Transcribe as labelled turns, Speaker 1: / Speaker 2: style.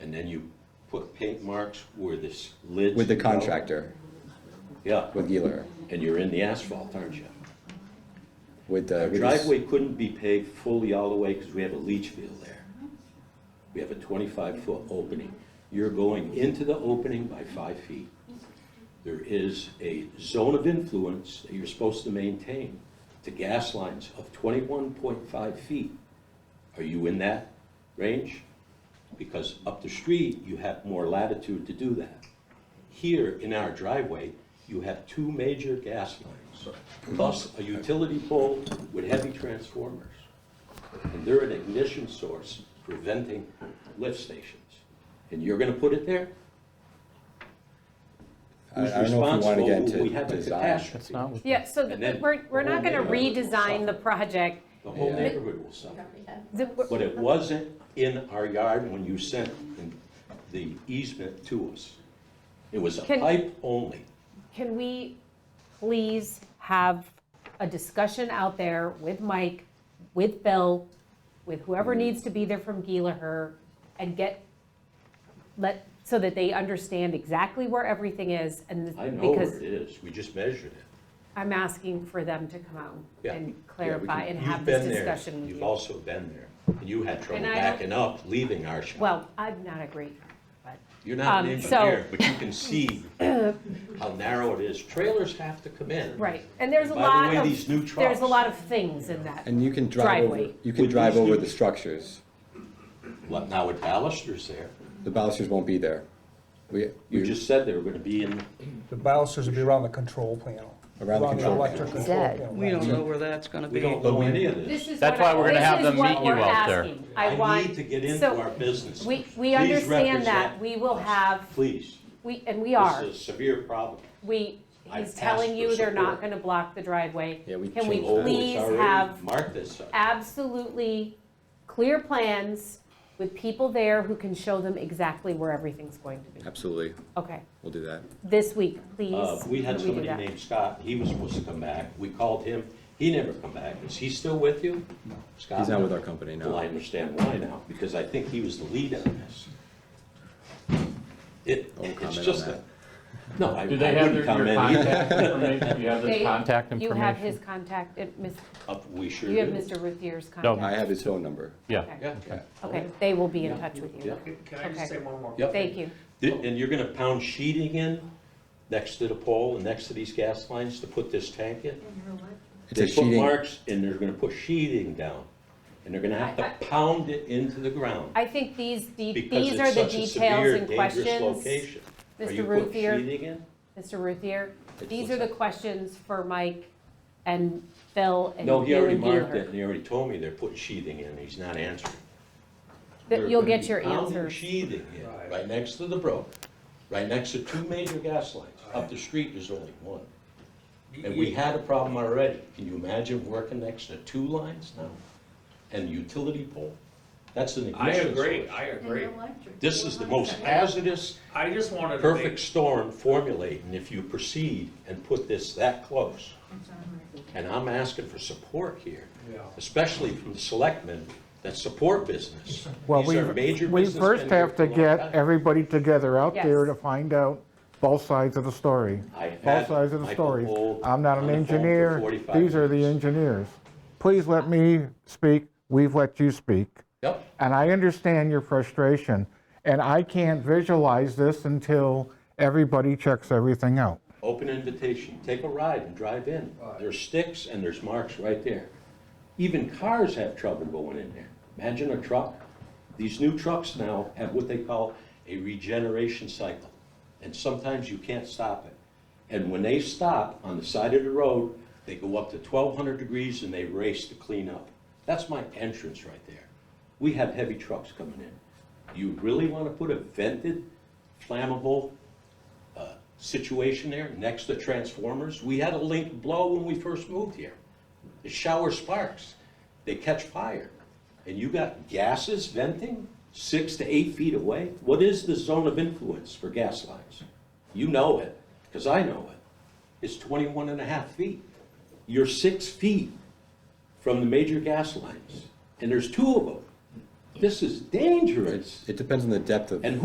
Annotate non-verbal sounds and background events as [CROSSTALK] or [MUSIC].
Speaker 1: and then you put paint marks where this lid.
Speaker 2: with the contractor,
Speaker 1: Yeah,
Speaker 2: with Giler,
Speaker 1: and you're in the asphalt, aren't you?
Speaker 2: with the.
Speaker 1: Our
Speaker 2: with this-
Speaker 1: driveway couldn't be paved fully all the way because we have a leach field there. We have a twenty-five foot opening. You're going into the opening by five feet. There is a zone of influence that you're supposed to maintain to gas lines of twenty-one point five feet. Are you in that range? Because up the street, you have more latitude to do that. Here in our driveway, you have two major gas lines, plus a utility pole with heavy transformers. And they're an ignition source for venting lift stations. And you're gonna put it there?
Speaker 2: I-
Speaker 1: Who's
Speaker 2: I don't know if you wanna
Speaker 1: responsible?
Speaker 2: get into
Speaker 1: We have a
Speaker 2: design.
Speaker 3: That's
Speaker 1: catastrophe.
Speaker 3: not what.
Speaker 4: Yeah, so
Speaker 1: And
Speaker 4: th-
Speaker 1: then
Speaker 4: we're, we're not
Speaker 1: the
Speaker 4: gonna
Speaker 1: whole neighborhood will
Speaker 4: redesign the
Speaker 1: suffer.
Speaker 4: project.
Speaker 1: The whole
Speaker 2: Yeah.
Speaker 1: neighborhood will suffer.
Speaker 4: The- we're-
Speaker 1: But it wasn't in our yard when you sent in the easement to us. It was a
Speaker 4: Can-
Speaker 1: pipe only.
Speaker 4: Can we please have a discussion out there with Mike, with Bill, with
Speaker 1: Mm-hmm.
Speaker 4: whoever needs to be there from Gilaher, and get, let, so that they understand exactly where everything is, and this-
Speaker 1: I know where
Speaker 4: because
Speaker 1: it is, we just measured it.
Speaker 4: I'm asking for them to come out
Speaker 1: Yeah. Yeah,
Speaker 4: and
Speaker 1: we
Speaker 4: clarify and
Speaker 1: You've
Speaker 4: have this
Speaker 1: been there,
Speaker 4: discussion with
Speaker 1: you've
Speaker 4: you.
Speaker 1: also been there, and you had trouble
Speaker 4: And I don't-
Speaker 1: backing up, leaving our shop.
Speaker 4: Well, I'm not agreeing, but,
Speaker 1: You're not an
Speaker 4: um, so-
Speaker 1: engineer, but you can
Speaker 4: [COUGHS]
Speaker 1: see how narrow it is. Trailers have to come in.
Speaker 4: right, and there's a
Speaker 1: And by
Speaker 4: lot
Speaker 1: the way,
Speaker 4: of,
Speaker 1: these new
Speaker 4: there's a
Speaker 1: trucks-
Speaker 4: lot of things in that.
Speaker 2: And you can drive over,
Speaker 4: Driveway.
Speaker 2: you can
Speaker 1: With
Speaker 2: drive
Speaker 1: these
Speaker 2: over
Speaker 1: new-
Speaker 2: the structures.
Speaker 1: Well, Now with balusters there,
Speaker 2: The balusters won't be there. We,
Speaker 1: you
Speaker 2: we-
Speaker 1: just said they were gonna be in,
Speaker 5: The balusters would be around the control panel.
Speaker 2: Around the control
Speaker 5: electric
Speaker 2: panel.
Speaker 5: control
Speaker 6: Dead.
Speaker 5: panel,
Speaker 7: We
Speaker 5: right.
Speaker 7: don't know where that's gonna
Speaker 1: we
Speaker 7: be.
Speaker 1: don't know any of this.
Speaker 4: This is
Speaker 3: That's
Speaker 4: what
Speaker 3: why
Speaker 4: I-
Speaker 3: we're gonna
Speaker 4: this
Speaker 3: have
Speaker 4: is
Speaker 3: them
Speaker 4: what
Speaker 3: meet you
Speaker 4: we're
Speaker 3: out there.
Speaker 4: asking. I
Speaker 1: I need
Speaker 4: want,
Speaker 1: to get into
Speaker 4: so
Speaker 1: our business.
Speaker 4: we,
Speaker 1: Please
Speaker 4: we understand that,
Speaker 1: represent
Speaker 4: we will
Speaker 1: us.
Speaker 4: have,
Speaker 1: Please,
Speaker 4: we, and we
Speaker 1: this
Speaker 4: are,
Speaker 1: is a severe problem.
Speaker 4: we,
Speaker 1: I've
Speaker 4: he's
Speaker 1: asked
Speaker 4: telling
Speaker 1: for
Speaker 4: you they're not
Speaker 1: support.
Speaker 4: gonna block the driveway.
Speaker 2: Yeah, we
Speaker 4: Can we
Speaker 2: changed that. Oh, it's
Speaker 4: please have
Speaker 1: Mark this up.
Speaker 4: absolutely clear plans with people there who can show them exactly where everything's going to be?
Speaker 2: Absolutely,
Speaker 4: Okay,
Speaker 2: we'll do that.
Speaker 4: this week,
Speaker 1: Uh,
Speaker 4: please.
Speaker 1: We had
Speaker 4: can do
Speaker 1: somebody
Speaker 4: that?
Speaker 1: named Scott, he was supposed to come back, we called him, he never come back, is he still with you? Scott?
Speaker 2: He's not with our company, no.
Speaker 1: Well, I understand why now, because I think he was the lead on this. It,
Speaker 2: won't
Speaker 1: [LAUGHS] it's
Speaker 2: comment on
Speaker 1: just a,
Speaker 2: that.
Speaker 1: no, I I
Speaker 3: Do they have their, your
Speaker 1: wouldn't comment either.
Speaker 3: contact information? Do you have
Speaker 4: They-
Speaker 3: their contact
Speaker 4: You have his
Speaker 3: information?
Speaker 4: contact, it- Miss-
Speaker 1: Uh, We sure
Speaker 4: you have
Speaker 1: do.
Speaker 4: Mr. Ruthier's
Speaker 3: No.
Speaker 2: I
Speaker 4: contact.
Speaker 2: have his phone number.
Speaker 3: Yeah.
Speaker 1: Yeah,
Speaker 4: Okay, they will be in touch with
Speaker 1: yeah,
Speaker 4: you.
Speaker 8: Can I
Speaker 4: Okay.
Speaker 8: just say one more?
Speaker 1: Yep.
Speaker 4: Thank you.
Speaker 1: Th- And you're gonna pound sheeting in next to the pole and next to these gas lines to put this tank in?
Speaker 2: It's a
Speaker 1: They put
Speaker 2: sheeting,
Speaker 1: marks and they're gonna put sheeting down, and they're gonna have
Speaker 4: I-
Speaker 1: to pound it into the ground.
Speaker 4: I think these, the-
Speaker 1: Because
Speaker 4: these are
Speaker 1: it's
Speaker 4: the
Speaker 1: such a
Speaker 4: details
Speaker 1: severe,
Speaker 4: and
Speaker 1: dangerous
Speaker 4: questions.
Speaker 1: location. Are you
Speaker 4: Mr.
Speaker 1: putting
Speaker 4: Ruthier,
Speaker 1: sheeting in?
Speaker 4: Mr. Ruthier,
Speaker 1: It's
Speaker 4: these are
Speaker 1: what's
Speaker 4: the
Speaker 1: that?
Speaker 4: questions for Mike and Phil and you
Speaker 1: No, he already
Speaker 4: and
Speaker 1: marked it,
Speaker 4: Giler.
Speaker 1: and he already told me they're putting sheathing in, he's not answering. They're
Speaker 4: That you'll
Speaker 1: gonna
Speaker 4: get
Speaker 1: be
Speaker 4: your
Speaker 1: pounding
Speaker 4: answers.
Speaker 1: Sheathing in, right next to the brook, right next to two major gas lines. Up the street, there's only one. And we had a problem already. Can you imagine working next to two lines now? And utility pole? That's an
Speaker 8: I
Speaker 1: ignition
Speaker 8: agree,
Speaker 1: source.
Speaker 8: I agree.
Speaker 1: This is the most hazardous
Speaker 8: I just wanted to
Speaker 1: perfect
Speaker 8: make,
Speaker 1: storm formulate, and if you proceed and put this that close, and I'm asking for support here,
Speaker 8: Yeah.
Speaker 1: especially from the selectmen that support business.
Speaker 9: Well,
Speaker 1: These are
Speaker 9: we,
Speaker 1: major
Speaker 9: we
Speaker 1: business
Speaker 9: first
Speaker 1: been here
Speaker 9: have
Speaker 1: for a
Speaker 9: to
Speaker 1: long
Speaker 9: get
Speaker 1: time.
Speaker 9: everybody together out there
Speaker 4: Yes.
Speaker 9: to find out both sides of the story.
Speaker 1: I had
Speaker 9: Both sides of the
Speaker 1: Michael
Speaker 9: stories.
Speaker 1: Gold
Speaker 9: I'm not
Speaker 1: on
Speaker 9: an
Speaker 1: the phone for
Speaker 9: engineer.
Speaker 1: 45
Speaker 9: These are the
Speaker 1: minutes.
Speaker 9: engineers. Please let me speak. We've let you speak.
Speaker 1: Yep,
Speaker 9: And I understand your frustration, and I can't visualize this until everybody checks everything out.
Speaker 1: open invitation, take a ride and drive in. There's sticks and there's marks right there. Even cars have trouble going in there. Imagine a truck. These new trucks now have what they call a regeneration cycle, and sometimes you can't stop it. And when they stop on the side of the road, they go up to 1,200 degrees and they race to clean up. That's my entrance right there. We have heavy trucks coming in. You really want to put a vented, flammable uh, situation there next to transformers? We had a link blow when we first moved here. The shower sparks, they catch fire. And you got gases venting six to eight feet away? What is the zone of influence for gas lines? You know it, because I know it. It's 21 and a half feet. You're six feet from the major gas lines, and there's two of them. This is dangerous.
Speaker 2: it depends on the depth of.
Speaker 1: And